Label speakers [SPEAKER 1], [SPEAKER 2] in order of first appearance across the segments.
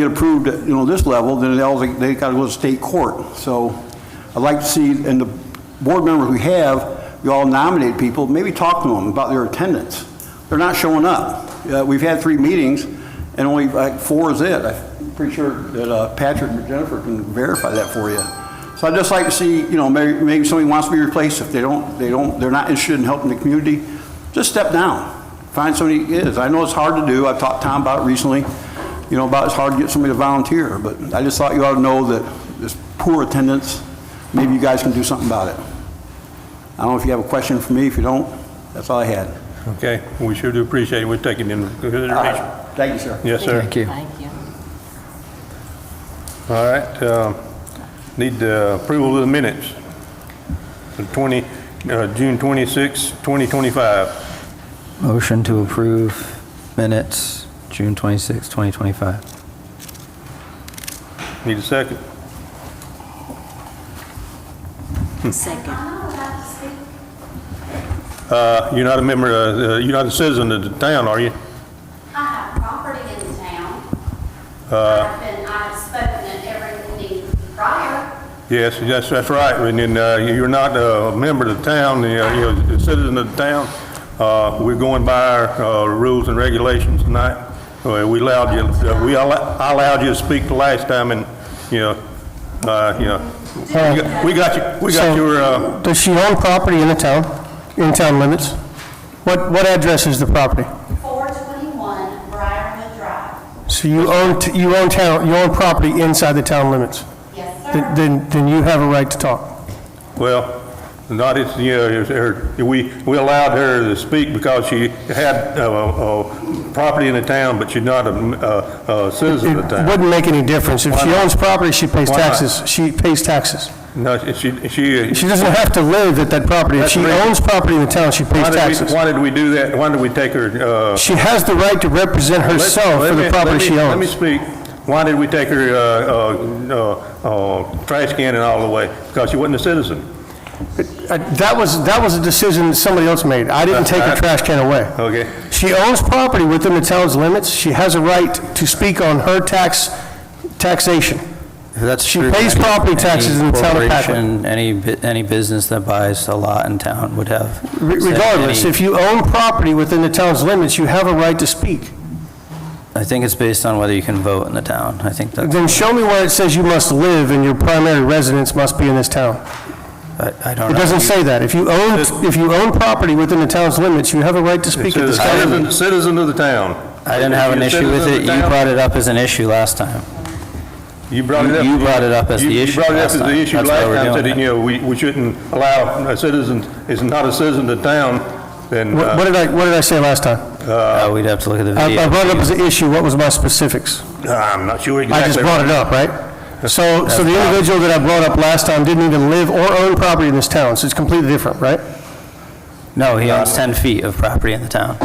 [SPEAKER 1] get approved at, you know, this level, then they all, they gotta go to state court. So I'd like to see, and the board members we have, you all nominate people, maybe talk to them about their attendance. They're not showing up. Uh, We've had three meetings, and only like four is it. I'm pretty sure that uh, Patrick and Jennifer can verify that for you. So I'd just like to see, you know, maybe, maybe somebody wants to be replaced. If they don't, they don't, they're not interested in helping the community, just step down. Find somebody that is. I know it's hard to do. I've talked to Tom about it recently, you know, about it's hard to get somebody to volunteer, but I just thought you ought to know that this poor attendance, maybe you guys can do something about it. I don't know if you have a question for me. If you don't, that's all I had.
[SPEAKER 2] Okay, we sure do appreciate it. We're taking into
[SPEAKER 1] All
[SPEAKER 2] consideration.
[SPEAKER 1] right. Thank you, sir.
[SPEAKER 2] Yes, sir.
[SPEAKER 3] Thank you.
[SPEAKER 4] Thank you.
[SPEAKER 2] All right, um, need the approval of the minutes. The 20, uh, June 26, 2025.
[SPEAKER 3] Motion to approve minutes, June 26, 2025.
[SPEAKER 2] Need a second?
[SPEAKER 4] Second.
[SPEAKER 2] Uh, You're not a member, uh, uh, you're not a citizen of the town, are you?
[SPEAKER 5] I have property in the town. I've been, I've spoken at every meeting prior.
[SPEAKER 2] Yes, that's, that's right. And then uh, you're not uh, a member of the town, you know, you're a citizen of the town. Uh, We're going by our uh, rules and regulations tonight. Uh, We allowed you, uh, we, al- I allowed you to speak the last time and, you know, uh, you know, we got- we got you, we got
[SPEAKER 6] So-
[SPEAKER 2] your, uh,
[SPEAKER 6] Does she own property in the town, in town limits? What, what address is the property?
[SPEAKER 5] 421 Briarwood Drive.
[SPEAKER 6] So you own, t- you own town, you own property inside the town limits?
[SPEAKER 5] Yes,
[SPEAKER 6] Then-
[SPEAKER 5] sir.
[SPEAKER 6] Then, then you have a right to talk.
[SPEAKER 2] well, not, it's, you know, it's her- we, we allowed her to speak because she had uh, uh, property in the town, but she's not a uh, a citizen of the
[SPEAKER 6] It
[SPEAKER 2] town.
[SPEAKER 6] wouldn't make any difference. If she
[SPEAKER 2] Why not?
[SPEAKER 6] owns property, she pays
[SPEAKER 2] Why not?
[SPEAKER 6] taxes. She pays taxes.
[SPEAKER 2] No, she, she.
[SPEAKER 6] She doesn't have to live at that property. If
[SPEAKER 2] That's
[SPEAKER 6] she
[SPEAKER 2] right.
[SPEAKER 6] owns property in the town, she pays
[SPEAKER 2] Why did we-
[SPEAKER 6] taxes.
[SPEAKER 2] Why did we do that? Why did we take her, uh...
[SPEAKER 6] She has the right to represent
[SPEAKER 2] let-
[SPEAKER 6] herself
[SPEAKER 2] let
[SPEAKER 6] for
[SPEAKER 2] me-
[SPEAKER 6] the
[SPEAKER 2] let
[SPEAKER 6] property
[SPEAKER 2] me-
[SPEAKER 6] she
[SPEAKER 2] Let me
[SPEAKER 6] owns.
[SPEAKER 2] speak. Why did we take her, uh, uh, uh, uh, trash can and all the way? Because she wasn't a citizen.
[SPEAKER 6] Uh, That was, that was a decision that somebody else made. I didn't take her
[SPEAKER 2] right.
[SPEAKER 6] trash can away.
[SPEAKER 2] Okay.
[SPEAKER 6] She owns property within the town's limits. She has a right to speak on her tax, taxation.
[SPEAKER 3] If that's
[SPEAKER 6] She
[SPEAKER 3] true,
[SPEAKER 6] pays
[SPEAKER 3] any-
[SPEAKER 6] property taxes in the town of
[SPEAKER 3] Any
[SPEAKER 6] Paquin.
[SPEAKER 3] corporation, any, bu- any business that buys a lot in town would have.
[SPEAKER 6] Re- Regardless, if you own property within the town's limits, you have a right to speak.
[SPEAKER 3] I think it's based on whether you can vote in the town. I think that,
[SPEAKER 6] Then show me where it says you must live and your primary residence must be in this town.
[SPEAKER 3] I I don't
[SPEAKER 6] It
[SPEAKER 3] know.
[SPEAKER 6] doesn't say that. If you own, if you own property within the town's limits, you have a right to
[SPEAKER 2] It
[SPEAKER 6] speak at
[SPEAKER 2] says
[SPEAKER 6] this town.
[SPEAKER 2] Citizen, citizen of the town.
[SPEAKER 3] I didn't have an
[SPEAKER 2] If you're
[SPEAKER 3] issue
[SPEAKER 2] a
[SPEAKER 3] with it.
[SPEAKER 2] citizen of the
[SPEAKER 3] You
[SPEAKER 2] town,
[SPEAKER 3] brought it up as an issue last time.
[SPEAKER 2] You brought it up.
[SPEAKER 3] you brought it up as
[SPEAKER 2] You-
[SPEAKER 3] the issue
[SPEAKER 2] You brought it up
[SPEAKER 3] last
[SPEAKER 2] as the
[SPEAKER 3] time.
[SPEAKER 2] issue
[SPEAKER 3] That's why
[SPEAKER 2] last
[SPEAKER 3] we're
[SPEAKER 2] time,
[SPEAKER 3] doing
[SPEAKER 2] said, that,
[SPEAKER 3] it.
[SPEAKER 2] you know, we, we shouldn't allow a citizen, is not a citizen of the town, then,
[SPEAKER 6] What what
[SPEAKER 2] uh,
[SPEAKER 6] did I, what did I say last time?
[SPEAKER 3] Uh, We'd have to look at the
[SPEAKER 6] I
[SPEAKER 3] video.
[SPEAKER 6] I brought it up as an issue. What was my specifics?
[SPEAKER 2] uh, I'm not sure exactly.
[SPEAKER 6] I just brought it up, right? So, so the individual that I brought up last time didn't even live or own property in this town, so it's completely different, right?
[SPEAKER 3] No, he owns 10 feet of property in the town.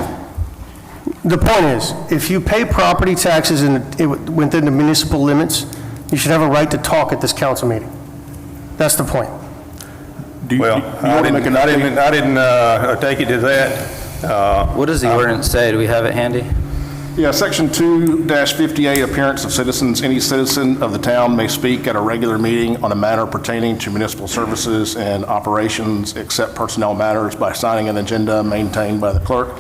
[SPEAKER 6] The point is, if you pay property taxes in, it- within the municipal limits, you should have a right to talk at this council meeting. That's the point.
[SPEAKER 2] Well, I didn't, I didn't, I didn't, uh, take it to that, uh...
[SPEAKER 3] What does the ordinance say? Do we have it handy?
[SPEAKER 7] Yeah, section two fifty-eight, appearance of citizens. Any citizen of the town may speak at a regular meeting on a matter pertaining to municipal services and operations, except personnel matters, by signing an agenda maintained by the clerk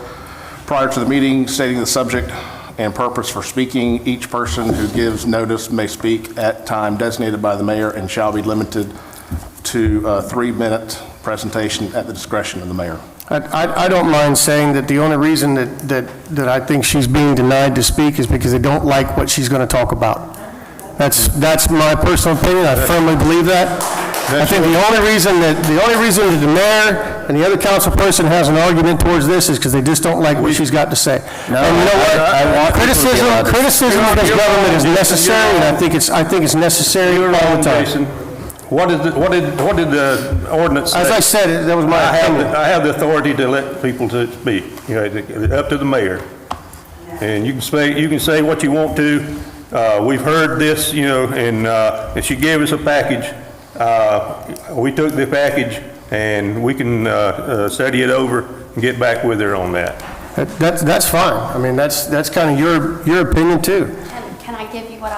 [SPEAKER 7] prior to the meeting, stating the subject and purpose for speaking. Each person who gives notice may speak at time designated by the mayor and shall be limited to a three-minute presentation at the discretion of the mayor.
[SPEAKER 6] I- I, I don't mind saying that the only reason that, that, that I think she's being denied to speak is because they don't like what she's going to talk about. That's, that's my personal opinion, I firmly believe that. I think the only reason that, the only reason that the mayor and the other council person has an argument towards this is because they just don't like what she's got to say.
[SPEAKER 3] No,
[SPEAKER 6] And you know what?
[SPEAKER 3] I- I want people to be
[SPEAKER 6] Criticism,
[SPEAKER 3] allowed to-
[SPEAKER 6] criticism of this government is necessary, and I think it's, I think it's necessary all the time.
[SPEAKER 2] Jason, what is, the- what did, what did the ordinance say?
[SPEAKER 6] As I said, it- that was my
[SPEAKER 2] I have, the-
[SPEAKER 6] opinion.
[SPEAKER 2] I have the authority to let people to speak, you know, it's up to the mayor. And you can say, you can say what you want to, uh, we've heard this, you know, and, uh, and she gave us a package. Uh, we took the package and we can, uh, uh, study it over and get back with her on that.
[SPEAKER 6] That- That's, that's fine, I mean, that's, that's kind of your, your opinion too.
[SPEAKER 5] Can can I give you what